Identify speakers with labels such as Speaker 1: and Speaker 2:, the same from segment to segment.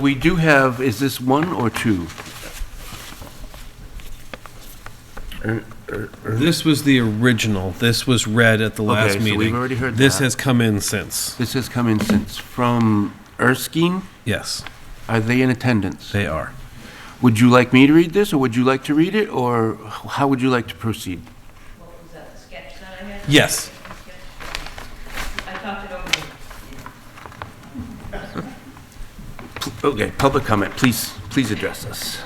Speaker 1: We do have, is this one or two?
Speaker 2: This was the original. This was read at the last
Speaker 1: Okay, so
Speaker 2: meeting.
Speaker 1: we've already heard
Speaker 2: This
Speaker 1: that.
Speaker 2: has come in since.
Speaker 1: This has come in since, from Erskine.
Speaker 2: Yes,
Speaker 1: Are they in attendance?
Speaker 2: they are.
Speaker 1: Would you like me to read this, or would you like to read it, or how would you like to proceed?
Speaker 3: What was that, the sketch that I had?
Speaker 2: Yes.
Speaker 3: I talked it over.
Speaker 1: Okay, public comment, please, please address us.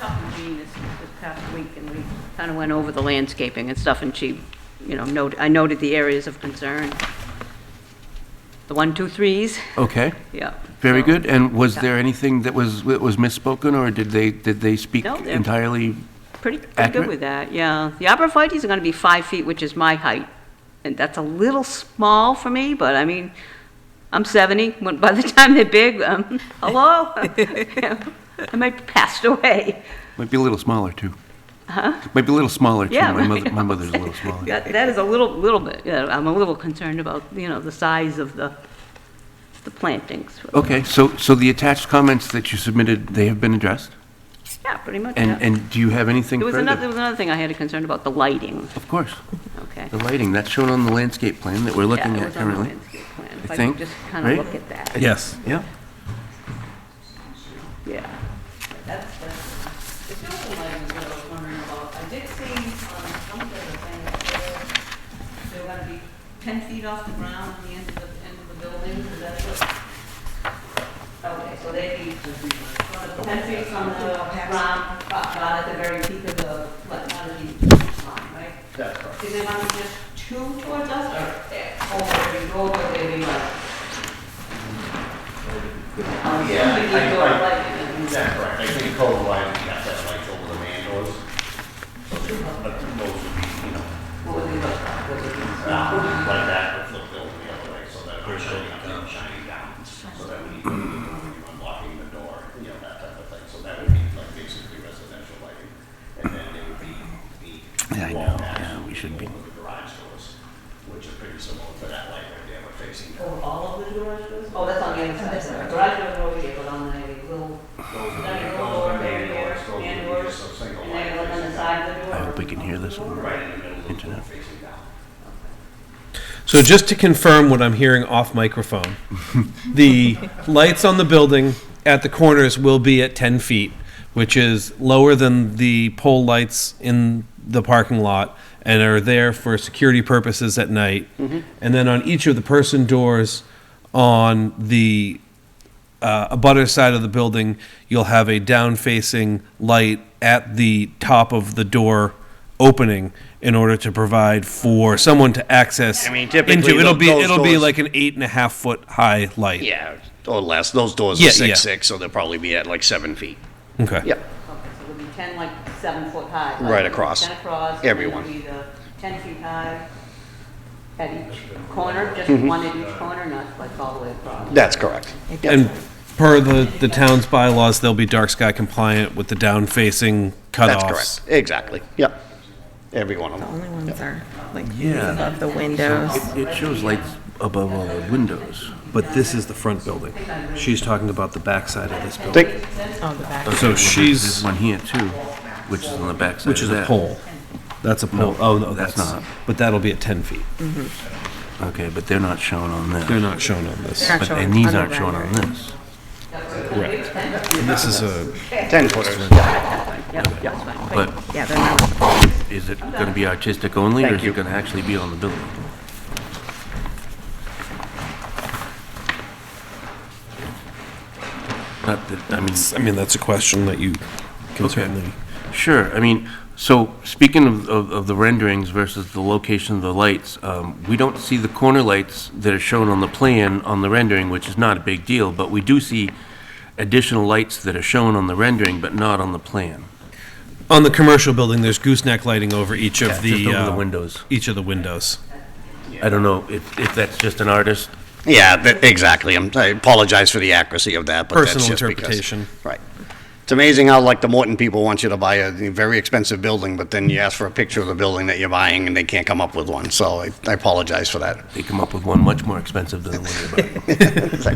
Speaker 3: talked to Jean this, this past week, and we kind of went over the landscaping and stuff, and she, you know, noted, I noted the areas of concern. The one, two, threes,
Speaker 1: Okay,
Speaker 3: yeah.
Speaker 1: very
Speaker 3: so-
Speaker 1: good. And was there anything that was, that was misspoken, or did they, did they speak
Speaker 3: No, they're-
Speaker 1: entirely?
Speaker 3: Pretty, pretty
Speaker 1: Accurate?
Speaker 3: good with that, yeah. The arborvitae's are going to be five feet, which is my height, and that's a little small for me, but I mean, I'm 70, when- by the time they're big, um, hello? I might be passed away.
Speaker 1: Might be a little smaller, too. Huh? Might be a little smaller, too.
Speaker 3: Yeah.
Speaker 1: My mother, my
Speaker 3: right.
Speaker 1: mother's a little smaller.
Speaker 3: That that is a little, little bit, yeah, I'm a little concerned about, you know, the size of the, the plantings.
Speaker 1: Okay, so, so the attached comments that you submitted, they have been addressed?
Speaker 3: Yeah, pretty much,
Speaker 1: And,
Speaker 3: yeah.
Speaker 1: and do you have anything
Speaker 3: There was
Speaker 1: further?
Speaker 3: another, there was another thing I had a concern about, the lighting,
Speaker 1: Of course,
Speaker 3: okay?
Speaker 1: the lighting, that's shown on the landscape plan that we're looking
Speaker 3: Yeah, it
Speaker 1: at
Speaker 3: was on the
Speaker 1: currently.
Speaker 3: landscape plan.
Speaker 1: I
Speaker 3: If I
Speaker 1: think,
Speaker 3: could just kind of
Speaker 1: right?
Speaker 3: look at that,
Speaker 2: Yes.
Speaker 1: Yeah,
Speaker 3: yeah. That's, that's, the building lighting is what I was wondering about. I did see um, on some of the things, that they're, they're gonna be 10 feet off the ground on the end of the, end of the building, is that what? Okay, so they'd be 10 feet from the ground, but not at the very peak of the, like, not at the line, right? That's correct. Do they want to just two towards us, or they're over, you go over, they'd be like? Um,
Speaker 4: Yeah,
Speaker 3: somebody
Speaker 4: I-
Speaker 3: go
Speaker 4: I-
Speaker 3: like-
Speaker 4: Is that correct? I think code wise, you have to have lights over the man doors. So they- But those would be, you know,
Speaker 3: What would they look like?
Speaker 4: not like that, but flipped over the other way so that we're showing up and shining down. So that when you go in, you're unlocking the door, you know, that type of thing. So that would be like basically residential lighting. And then it would be
Speaker 1: Yeah, I
Speaker 4: the
Speaker 1: know.
Speaker 4: wall match.
Speaker 1: Yeah, we should be.
Speaker 4: Over the garage doors, which are pretty similar to that light right there, we're facing.
Speaker 3: Over Oh, all of the garage doors? Oh, that's on the other side. Garage doors are over here, but on the little, there's a little door there, there,
Speaker 4: Those would be
Speaker 3: and doors,
Speaker 4: just a single
Speaker 3: and
Speaker 4: light
Speaker 3: then on
Speaker 4: facing
Speaker 3: the side of the door.
Speaker 1: I hope we can hear this one.
Speaker 4: Right in the middle of the door
Speaker 1: Internet.
Speaker 4: facing down.
Speaker 2: So just to confirm what I'm hearing off microphone, the lights on the building at the corners will be at 10 feet, which is lower than the pole lights in the parking lot and are there for security purposes at night.
Speaker 5: Mm-hmm.
Speaker 2: And then on each of the person doors on the uh, abutter side of the building, you'll have a down facing light at the top of the door opening in order to provide for someone to access
Speaker 5: I mean, typically
Speaker 2: into it'll be
Speaker 5: tho- those
Speaker 2: it'll be
Speaker 5: doors-
Speaker 2: like an eight and a half foot high light.
Speaker 5: Yeah, or less. Those doors
Speaker 2: Yeah,
Speaker 5: are
Speaker 2: yeah.
Speaker 5: six, six, so they'll probably be at like seven feet.
Speaker 2: Okay.
Speaker 5: Yeah,
Speaker 3: Okay, so it'll be 10, like, seven foot high. like,
Speaker 5: Right across.
Speaker 3: 10 across. and
Speaker 5: Everyone.
Speaker 3: It'll be the 10 feet high at each corner, just
Speaker 5: Mm-hmm.
Speaker 3: one at each corner, not like all the way across.
Speaker 5: that's correct.
Speaker 2: And per the the town's bylaws, they'll be dark sky compliant with the down facing cutoffs.
Speaker 5: That's correct. Exactly. Yep. Every one of them.
Speaker 6: Only ones are like
Speaker 1: Yeah.
Speaker 6: above the windows.
Speaker 1: It it shows lights above all the windows.
Speaker 2: But this is the front building. She's talking about the backside of this building.
Speaker 5: Think,
Speaker 6: On the back.
Speaker 2: So
Speaker 1: There's
Speaker 2: she's
Speaker 1: one here, too, which is on the backside.
Speaker 2: which
Speaker 1: of
Speaker 2: is a
Speaker 1: that.
Speaker 2: pole. That's a pole. Oh no,
Speaker 1: that's not.
Speaker 2: But that'll be at ten feet.
Speaker 1: Okay, but they're not shown on
Speaker 2: They're
Speaker 1: this.
Speaker 2: not shown on this.
Speaker 6: They're not
Speaker 1: But,
Speaker 6: shown
Speaker 1: and these
Speaker 6: on the
Speaker 1: aren't shown on
Speaker 6: rendering.
Speaker 1: this.
Speaker 2: And this is a
Speaker 5: ten footers. Yeah.
Speaker 1: But
Speaker 6: Yeah, they're not.
Speaker 1: is it going to be artistic only, or
Speaker 5: Thank
Speaker 1: is
Speaker 5: you.
Speaker 1: it going to actually be on the building? Not that, I mean,
Speaker 2: I mean, that's a question that you can
Speaker 1: Okay.
Speaker 2: certainly.
Speaker 1: Sure, I mean, so, speaking of, of of the renderings versus the location of the lights, um, we don't see the corner lights that are shown on the plan on the rendering, which is not a big deal, but we do see additional lights that are shown on the rendering, but not on the plan.
Speaker 2: On the commercial building, there's gooseneck lighting over each of the.
Speaker 1: Just over the
Speaker 2: uh,
Speaker 1: windows.
Speaker 2: Each of the windows.
Speaker 1: I don't know if, if that's just an artist,
Speaker 5: Yeah, tha- exactly. I'm, I apologize for the accuracy of that, but
Speaker 2: Personal
Speaker 5: that's just because-
Speaker 2: interpretation.
Speaker 5: right. It's amazing how like the Morton people want you to buy a very expensive building, but then you ask for a picture of the building that you're buying and they can't come up with one. So I, I apologize for that.
Speaker 1: they come up with one much more expensive than the one you're buying.
Speaker 5: It's like,